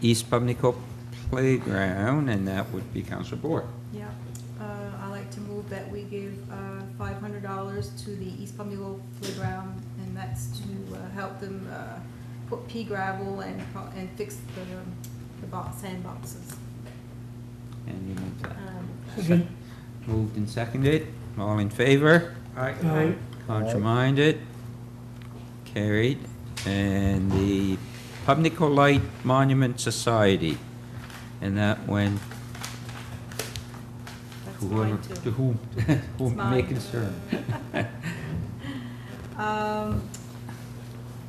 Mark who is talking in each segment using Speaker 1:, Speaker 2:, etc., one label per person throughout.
Speaker 1: East Pubnico Playground, and that would be Council Board.
Speaker 2: Yeah, uh, I like to move that we give, uh, five hundred dollars to the East Palmdale Playground, and that's to, uh, help them, uh, put pea gravel and, pro- and fix the, um, the box, sandboxes.
Speaker 1: And you move that.
Speaker 2: Um,
Speaker 3: Second.
Speaker 1: Moved and seconded, all in favor?
Speaker 3: Aye.
Speaker 1: Contraminded? Carried. And the Pubnico Light Monument Society, and that went
Speaker 2: That's
Speaker 1: whoever,
Speaker 2: mine too.
Speaker 1: to whom,
Speaker 2: It's
Speaker 1: whom may
Speaker 2: mine.
Speaker 1: concern.
Speaker 2: Um,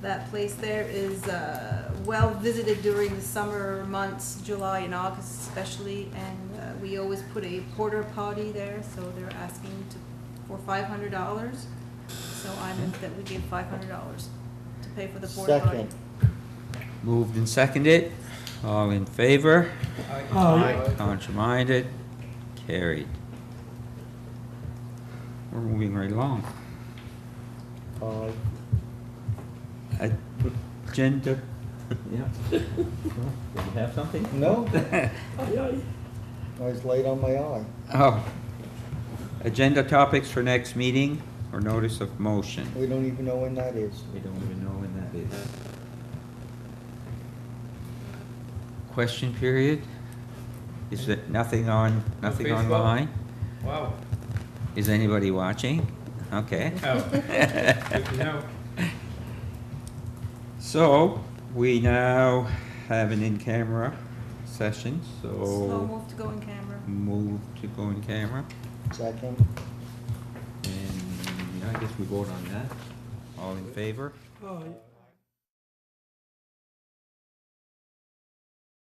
Speaker 2: that place there is, uh, well-visited during the summer months, July and August especially, and, uh, we always put a porter potty there, so they're asking to, for five hundred dollars. So I move that we give five hundred dollars to pay for the porter potty.
Speaker 4: Second.
Speaker 1: Moved and seconded, all in favor?
Speaker 3: Aye.
Speaker 1: Contraminded? Carried. We're moving right along.
Speaker 4: Aye.
Speaker 1: Agenda, yeah. Did you have something?
Speaker 4: No,
Speaker 3: Aye.
Speaker 4: I was late on my eye.
Speaker 1: Oh. Agenda topics for next meeting or notice of motion?
Speaker 4: We don't even know when that is.
Speaker 1: We don't even know when that is. Question period? Is there nothing on, nothing
Speaker 5: Facebook?
Speaker 1: online?
Speaker 5: Wow,
Speaker 1: Is anybody watching? Okay.
Speaker 5: oh, good to know.
Speaker 1: So, we now have an in-camera session,
Speaker 2: Slow
Speaker 1: so
Speaker 2: move to go in camera.
Speaker 1: move to go in camera.
Speaker 4: Second.
Speaker 1: And I guess we vote on that. All in favor?
Speaker 3: Aye.